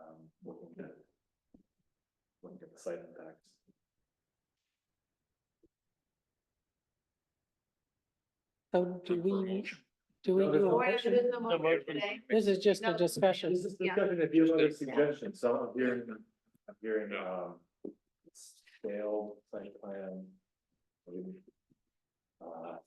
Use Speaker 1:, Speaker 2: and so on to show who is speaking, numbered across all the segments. Speaker 1: um, site impacts.
Speaker 2: So do we, do we,
Speaker 1: No, there's no
Speaker 2: do
Speaker 3: Or
Speaker 2: a-
Speaker 3: if it
Speaker 1: motion.
Speaker 3: is the
Speaker 1: No
Speaker 3: motion
Speaker 1: motion.
Speaker 3: today,
Speaker 2: this is just a
Speaker 3: No.
Speaker 2: discussion.
Speaker 1: This is
Speaker 3: Yeah.
Speaker 1: discussion, if you have other suggestions, so I'm hearing, I'm hearing, um, scale site plan. Uh,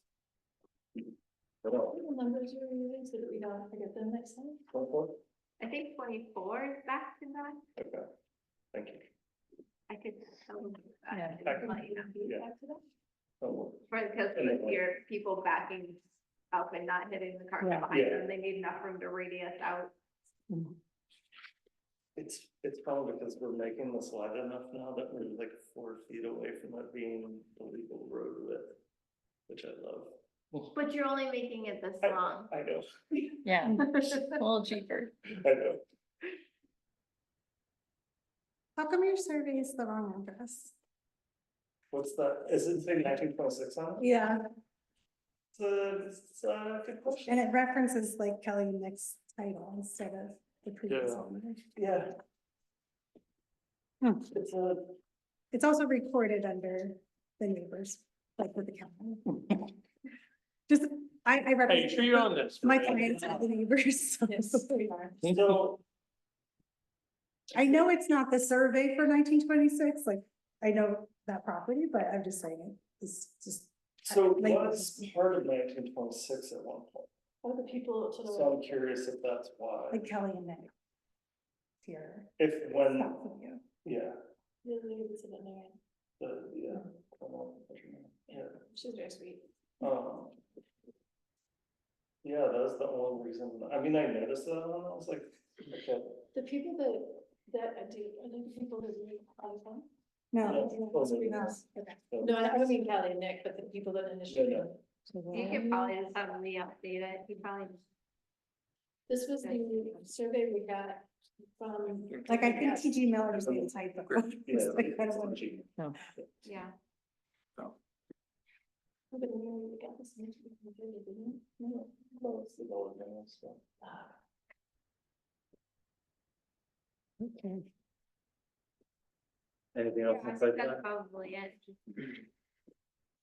Speaker 1: What else?
Speaker 4: What numbers you were using so that we don't forget them next time?
Speaker 1: One more?
Speaker 3: I think twenty-four is back to back.
Speaker 1: Okay, thank you.
Speaker 3: I could tell them.
Speaker 4: Yeah.
Speaker 3: that. I can let you know.
Speaker 1: Yeah.
Speaker 4: Back to that?
Speaker 1: One more.
Speaker 3: Right, because
Speaker 1: And then-
Speaker 3: you hear people backing up and not hitting the cars
Speaker 2: Yeah.
Speaker 3: behind
Speaker 1: Yeah.
Speaker 3: them. They need enough room to radius out.
Speaker 5: It's, it's probably because we're making the slide enough now that we're like four feet away from it being the legal road width, which I love.
Speaker 3: But you're only making it this
Speaker 5: I-
Speaker 3: long.
Speaker 5: I know,
Speaker 4: Yeah, a little cheaper.
Speaker 5: I know.
Speaker 6: How come your survey is the wrong address?
Speaker 5: What's that? Is it say nineteen point six on it?
Speaker 6: Yeah,
Speaker 5: It's a, it's a good
Speaker 6: and
Speaker 5: question.
Speaker 6: it references like Kelly Nick's title instead of the previous
Speaker 5: Yeah.
Speaker 6: owner.
Speaker 5: Yeah.
Speaker 2: Hmm.
Speaker 5: It's a,
Speaker 6: It's also recorded under the neighbors, like with the county. Just, I, I
Speaker 7: Hey, you sure
Speaker 6: represent
Speaker 7: you're
Speaker 1: uh,
Speaker 7: on this?
Speaker 6: my
Speaker 7: Maria?
Speaker 6: clients are the neighbors. so-
Speaker 5: so
Speaker 6: I know it's not the survey for nineteen twenty-six, like, I know that property, but I'm just saying it's just,
Speaker 5: so it
Speaker 6: Like-
Speaker 5: was part of nineteen point six at one point,
Speaker 4: All the people to
Speaker 5: so
Speaker 4: the.
Speaker 5: I'm curious if that's why,
Speaker 6: like Kelly and Nick. Here,
Speaker 5: if when,
Speaker 6: south of you.
Speaker 5: yeah,
Speaker 4: Really good to the man.
Speaker 5: the, yeah. I don't know what you mean. Yeah.
Speaker 4: She's very sweet.
Speaker 5: Um. Yeah, that was the only reason, I mean, I noticed that, and I was like, okay,
Speaker 4: The people that, that I do, I know the people that we call them.
Speaker 6: No.
Speaker 5: Yeah, those are
Speaker 6: no.
Speaker 5: yours. so-
Speaker 4: No, I don't mean Kelly and Nick, but the people that initially.
Speaker 5: Yeah,
Speaker 3: You could probably just suddenly update it. You probably,
Speaker 4: This was the survey we got from.
Speaker 6: Like, I think TG Miller's the type of.
Speaker 5: yeah,
Speaker 6: Like, I don't wanna-
Speaker 5: it's-
Speaker 3: yeah.
Speaker 4: But we only got this much we can do, didn't we? No.
Speaker 5: it's the lower name, so.
Speaker 2: Okay.
Speaker 1: Anything
Speaker 3: Yeah,
Speaker 1: else
Speaker 3: That's
Speaker 1: inside that?
Speaker 3: that's probably it. Just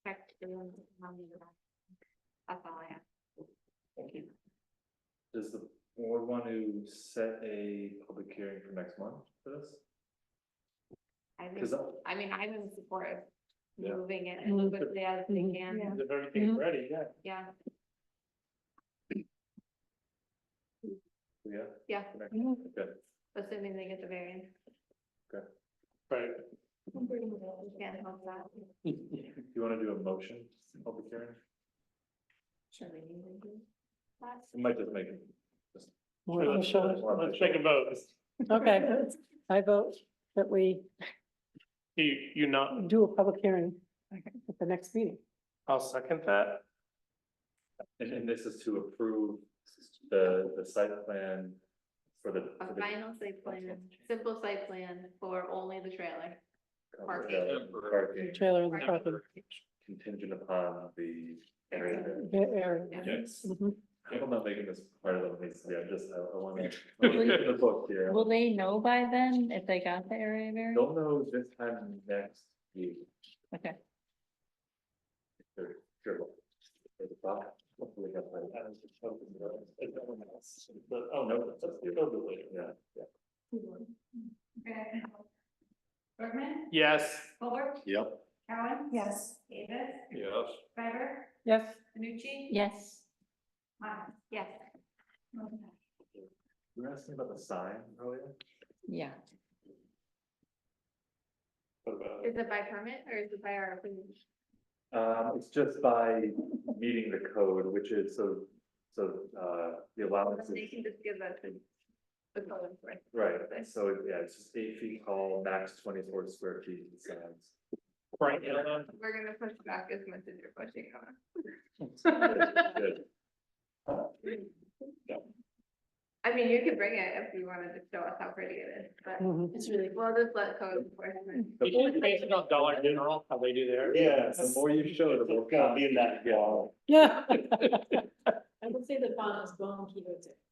Speaker 3: check the room, how many are left. That's all I have.
Speaker 5: Thank you.
Speaker 1: Does the board want to set a public hearing for next month for this?
Speaker 3: I think,
Speaker 1: Cause I-
Speaker 3: I mean, I'm in support of
Speaker 1: Yeah.
Speaker 3: moving it
Speaker 2: Mhm.
Speaker 3: as quickly as we
Speaker 2: Mhm.
Speaker 3: can.
Speaker 6: Mm-hmm. Yeah.
Speaker 5: If everything's
Speaker 6: Mm-hmm.
Speaker 2: Mhm.
Speaker 5: ready, yeah.
Speaker 3: Yeah,
Speaker 1: yeah.
Speaker 3: Yeah.
Speaker 1: for next-
Speaker 6: Mm-hmm.
Speaker 2: Mhm.
Speaker 1: Okay,
Speaker 3: assuming they get the variance.
Speaker 5: Right.
Speaker 4: I'm bringing it all.
Speaker 3: Can't help that.
Speaker 1: do you wanna do a motion, public hearing?
Speaker 4: Sure, we need to do that.
Speaker 1: We might just make it. just-
Speaker 2: Well,
Speaker 5: Let's
Speaker 2: Michelle-
Speaker 5: let's take a vote.
Speaker 2: Okay, I vote that we
Speaker 7: You, you not,
Speaker 2: do a public hearing at the next meeting.
Speaker 7: I'll second that.
Speaker 1: And, and this is to approve the, the site plan for the.
Speaker 3: A
Speaker 1: for the-
Speaker 3: final site plan, simple site plan for only the trailer.
Speaker 1: Parking.
Speaker 3: Parking.
Speaker 1: Parking
Speaker 2: Trailer and parking.
Speaker 1: contingent upon the area. that-
Speaker 2: Yeah, area.
Speaker 3: Yeah.
Speaker 1: Yes.
Speaker 2: Mhm.
Speaker 1: I'm not making this part of the, meeting, I'm just, I I wanna. I wanna get the book here.
Speaker 8: Will they know by then if they got the area variance?
Speaker 1: Don't know this time next week.
Speaker 8: Okay.
Speaker 1: Sure, sure. At the top, hopefully that's right.
Speaker 5: I was just hoping that it's everyone else, But, oh, no, that's, that's the later.
Speaker 1: Yeah, yeah.
Speaker 3: Bergman,
Speaker 7: Yes.
Speaker 3: Colbert,
Speaker 1: Yep.
Speaker 3: Cowan,
Speaker 6: Yes.
Speaker 3: Davis,
Speaker 7: Yes.
Speaker 3: Schreiber,
Speaker 2: Yes,
Speaker 3: Nucci.
Speaker 8: Yes.
Speaker 3: Yes.
Speaker 1: You were asking about the sign earlier?
Speaker 8: Yeah.
Speaker 5: What about
Speaker 3: Is it by permit or is it by our opinion?
Speaker 1: Um, it's just by meeting the code, which is so, so, uh, the allowance
Speaker 3: They
Speaker 1: is,
Speaker 3: can just give us a, a code for it.
Speaker 1: right, so, yeah, it's just eight feet tall, max twenty-four square feet in signs.
Speaker 7: Right, yeah.
Speaker 3: We're gonna push back as much as you're pushing on.
Speaker 1: Good.
Speaker 3: I mean, you could bring it if you wanted to show us how pretty it is, but
Speaker 2: mhm.
Speaker 4: It's really cool.
Speaker 3: we'll just let code enforcement.
Speaker 1: The
Speaker 7: You
Speaker 1: more
Speaker 7: should base it on Dollar General, how they do there.
Speaker 5: it? Yeah.
Speaker 1: The more you show, the more.
Speaker 5: It's gonna be in that wall.
Speaker 2: yeah.
Speaker 4: I would say the font is bone keto tip.